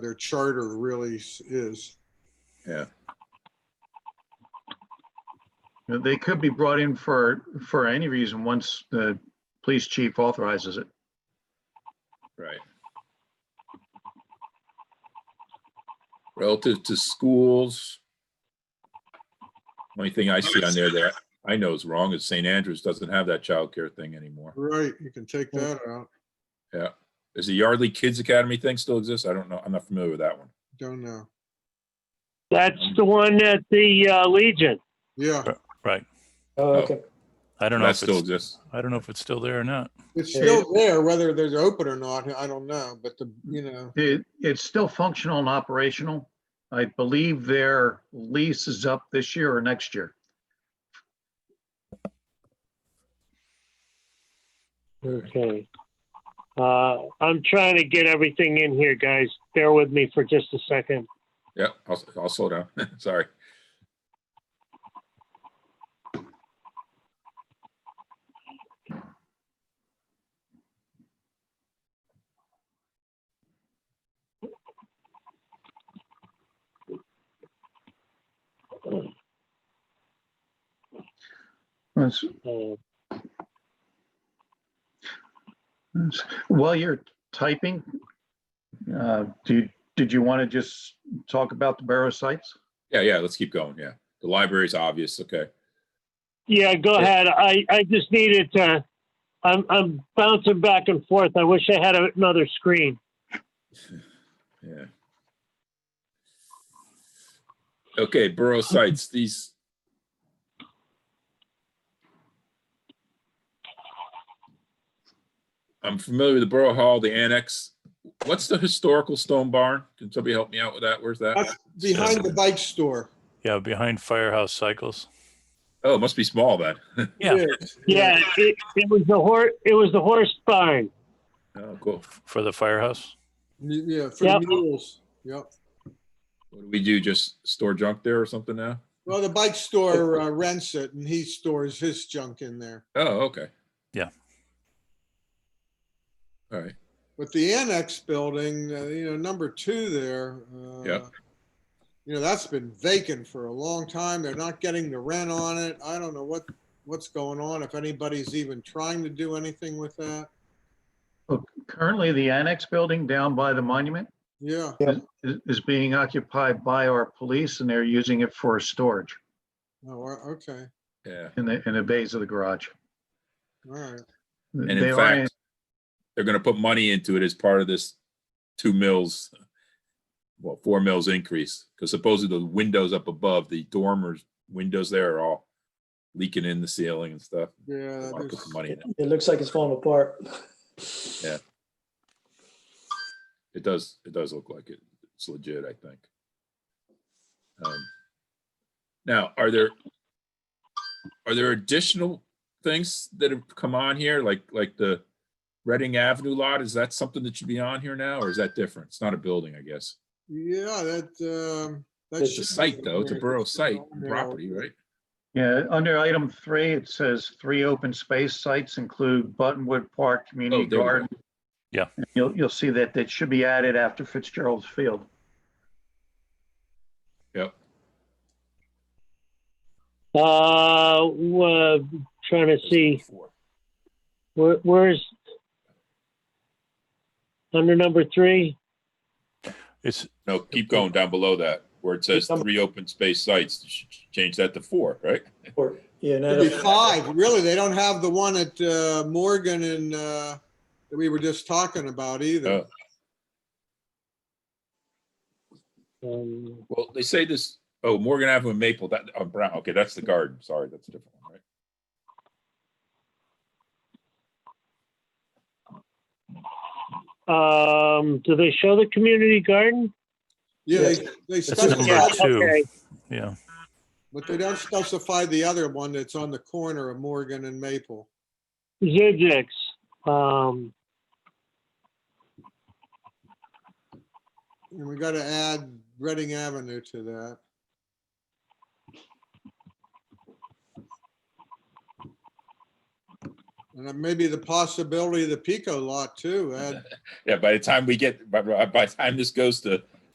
their charter really s- is. You know, They could be brought in for, for any reason, once the police chief authorizes it. Right. Relative to schools. Only thing I see on there that I know is wrong is St. Andrews doesn't have that childcare thing anymore. Right, you can take that out. Is the Yardley Kids Academy thing still exists? I don't know. I'm not familiar with that one. Don't know. That's the one at the uh, Legion. Yeah, Right. Oh, Oh. okay. I don't know That if still it's, exists. I don't know if it's still there or not. it's still there, whether they're open or not, I don't know, but the, you know, It, it's still functional and operational. I believe their lease is up this year or next year. Okay. Uh, I'm trying to get everything in here, guys. Bear with me for just a second. Yeah, I'll, I'll slow down. Sorry. That's- Uh, that's- While you're typing, uh, do, you- did you want to just talk about the borough sites? Yeah, yeah, let's keep going. Yeah. The library's obvious. Okay. yeah, go ahead. I, I just needed to. I'm I'm bouncing back and forth. I wish I had a- another screen. Yeah. Okay, borough sites, these. I'm familiar with the Borough Hall, the annex. What's the historical stone barn? Can somebody help me out with that? Where's that? that's behind the bike store. Yeah, behind Firehouse Cycles. Oh, it must be small then. Yeah. Yes, Yeah, it, it was the horse. It was the horse barn. Oh, cool. f- For the firehouse? Yeah, for the Yep. mules, yep. What do we do? Just store junk there or something now? Well, the bike store uh, rents it and he stores his junk in there. Oh, okay. Yeah. All right. But the annex building, uh, you know, number two there. uh, Yep. You know, that's been vacant for a long time. They're not getting the rent on it. I don't know what, what's going on, if anybody's even trying to do anything with that. Currently, the annex building down by the monument Yeah, is, is being occupied by our police and they're using it for storage oh, uh, okay, Yeah. in the, in the bays of the garage. all right. And They in are fact, they're gonna put money into it as part of this two mills, well, four mills increase, because supposedly the windows up above, the dormers, windows there are all leaking in the ceiling and stuff. They Yeah, wanna Put Uh, there's- some money in It it. it looks like it's falling apart. Yeah. It does, it does look like it. It's legit, I think. Um, Now, are there, are there additional things that have come on here, like, like the Reading Avenue lot? Is that something that should be on here now, or is that different? It's not a building, I guess. yeah, that, um. that It's It's should a be site, though. It's a there. borough site, and Yeah. property, right? Yeah, under item three, it says three open space sites include Buttonwood Park Community Oh, there we go. Garden. Yeah. And You'll, you'll see that that should be added after Fitzgerald's Field. Yep. Uh, wa- trying to see where, where's under number three. It's, No, keep going down below that, where it says Number- three open space sites, You should change that to four, right? Or, yeah. no, It'd be no. five, really. They don't have the one at uh, Morgan and uh, that we were just talking about either. Oh. Um, Well, they say this, oh, Morgan Avenue and Maple, that, oh, Brown, okay, that's the garden, sorry, that's a different one, right? um, do they show the community garden? Yeah, they, Yeah. they number Yeah. specify, two. Okay. yeah, but they don't specify the other one that's on the corner of Morgan and Maple. Zigix. Um, And we gotta add Reading Avenue to that. And then maybe the possibility of the Pico lot too, add Yeah, by the time we get, by, by the time this goes to